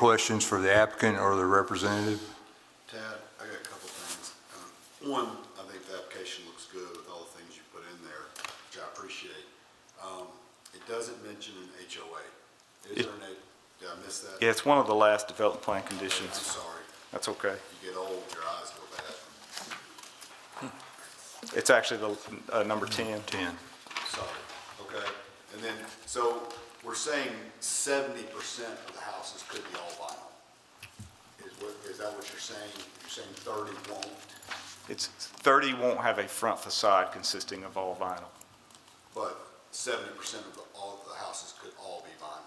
questions for the applicant or the representative? Tad, I got a couple things. Um, One, I think the application looks good with all the things you put in there, which I appreciate. Um, It doesn't mention an HOA. Is there an, A- did I miss that? Yeah, it's one of the last development plan I'm conditions. sorry. That's okay. You get old, your eyes go bad. It's actually the, uh, number 10. 10. So, okay, and then, so we're saying seventy percent of the houses could be all vinyl? Is what, is that what you're saying? You're saying thirty won't? It's, 30 won't have a front facade consisting of all vinyl. But seventy percent of the, all of the houses could all be vinyl?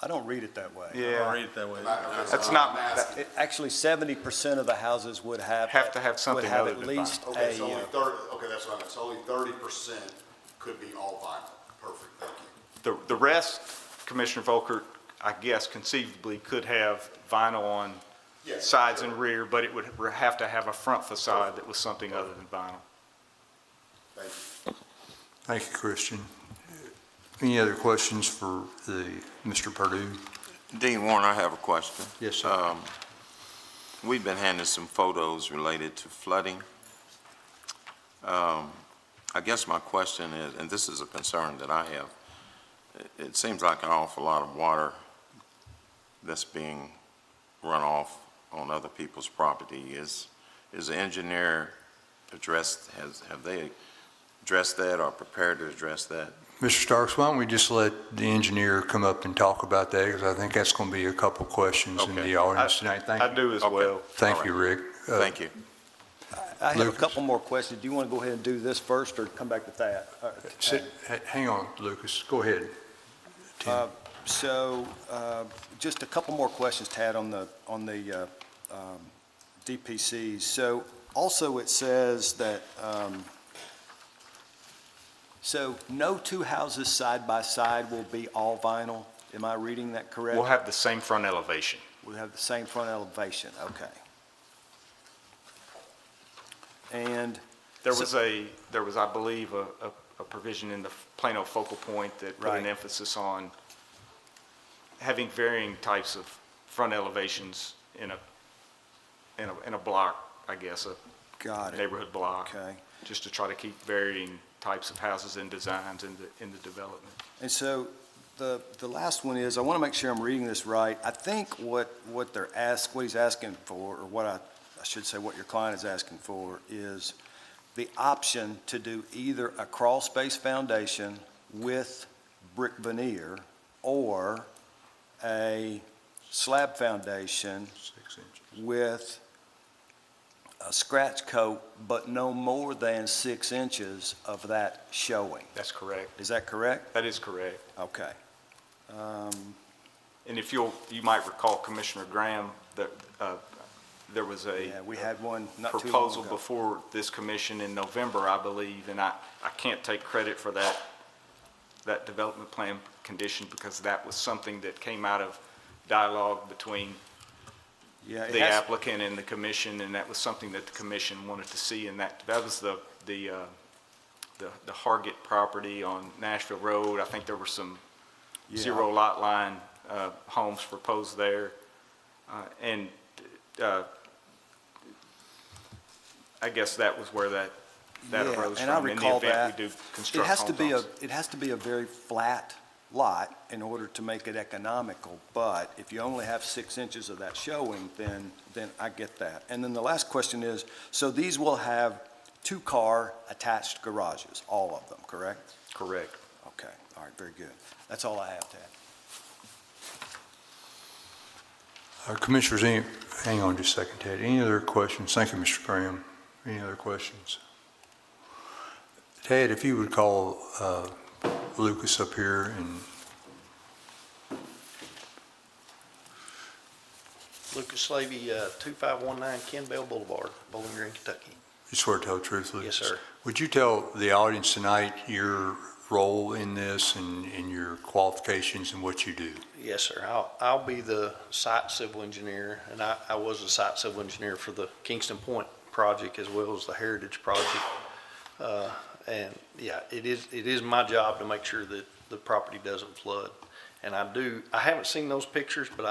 I don't read it that way. Yeah. Read it that way. That's I'm not- asking. It- Actually, seventy percent of the houses would have. Have to have something other Would than have at least Okay, so a, only uh, thirty, okay, that's what I meant, so only thirty percent could be all vinyl, perfect, thank you. The, the rest, Commissioner Volker, I guess conceivably could have vinyl on Yeah, sides sure. and rear, but it would have to have a front facade that was something other than vinyl. Thank you. Thank you, Christian. Any other questions for the, Mr. Purdue? Dean Warren, I have a question. Yes, sir. Um, We've been handed some photos related to flooding. Um, I guess my question is, and this is a concern that I have, it- it seems like an awful lot of water that's being run off on other people's property. Is, is the engineer addressed, has, have they addressed that or prepared to address that? Mr. Starks, why don't we just let the engineer come up and talk about that, because I think that's going to be a couple questions in Okay. the audience tonight. Thank I you. do as Okay. well. Thank you, Rick. Uh, Thank you. I have a Lucas. couple more questions. Do you want to go ahead and do this first or come back to that? Uh, sit- h- Hang on, Lucas, go ahead. Tim. Uh, So, uh, just a couple more questions, Tad, on the, on the uh, um, DPCs. So, also it says that, um, so no two houses side by side will be all vinyl. Am I reading that correct? We'll have the same front elevation. We have the same front elevation, okay. And, There was a, there was, I believe, a, a- a provision in the Plano focal point that put an Right. emphasis on having varying types of front elevations in a, in a, in a block, I guess, a got it, neighborhood block. okay. Just to try to keep varying types of houses and designs in the, in the development. And so the, the last one is, I want to make sure I'm reading this right. I think what, what they're ask, what he's asking for, or what I, I should say, what your client is asking for is the option to do either a crawl space foundation with brick veneer or a slab foundation Six inches. with a scratch coat, but no more than six inches of that showing. That's correct. Is that correct? That is correct. Okay. Um, And if you'll, you might recall Commissioner Graham, that, uh, there was a. Yeah, we had one not too long proposal ago. before this commission in November, I believe, and I, I can't take credit for that, that development plan condition, because that was something that came out of dialogue between Yeah, it the has- applicant and the commission, and that was something that the commission wanted to see, and that, that was the, the, uh, the the Hargit property on Nashville Road. I think there were some yeah. zero lot line uh, homes proposed there. Uh, And uh, I guess that was where that, that Yeah, arose and I from. In the recall event that. we do It construct has to homes be on a, it has to be a very flat lot in order to make it economical, but if you only have six inches of that showing, then, then I get that. And then the last question is, so these will have two-car attached garages, all of them, correct? Correct. Okay, all right, very good. That's all I have, Tad. Uh, Commissioners, any, hang on just a second, Ted. Any other questions? Thank you, Mr. Graham. Any other questions? Ted, if you would call uh, Lucas up here and Lucas Levy, uh, 2519 Ken Bell Boulevard, Bowling Green, Kentucky. you swear to tell the truth, Yes, Lucas? sir. Would you tell the audience tonight your role in this and, and your qualifications and what you do? Yes, sir. I'll, I'll be the site civil engineer, and I, I was a site civil engineer for the Kingston Point project as well as the Heritage project. Uh, And yeah, it is, it is my job to make sure that the property doesn't flood. And I do, I haven't seen those pictures, but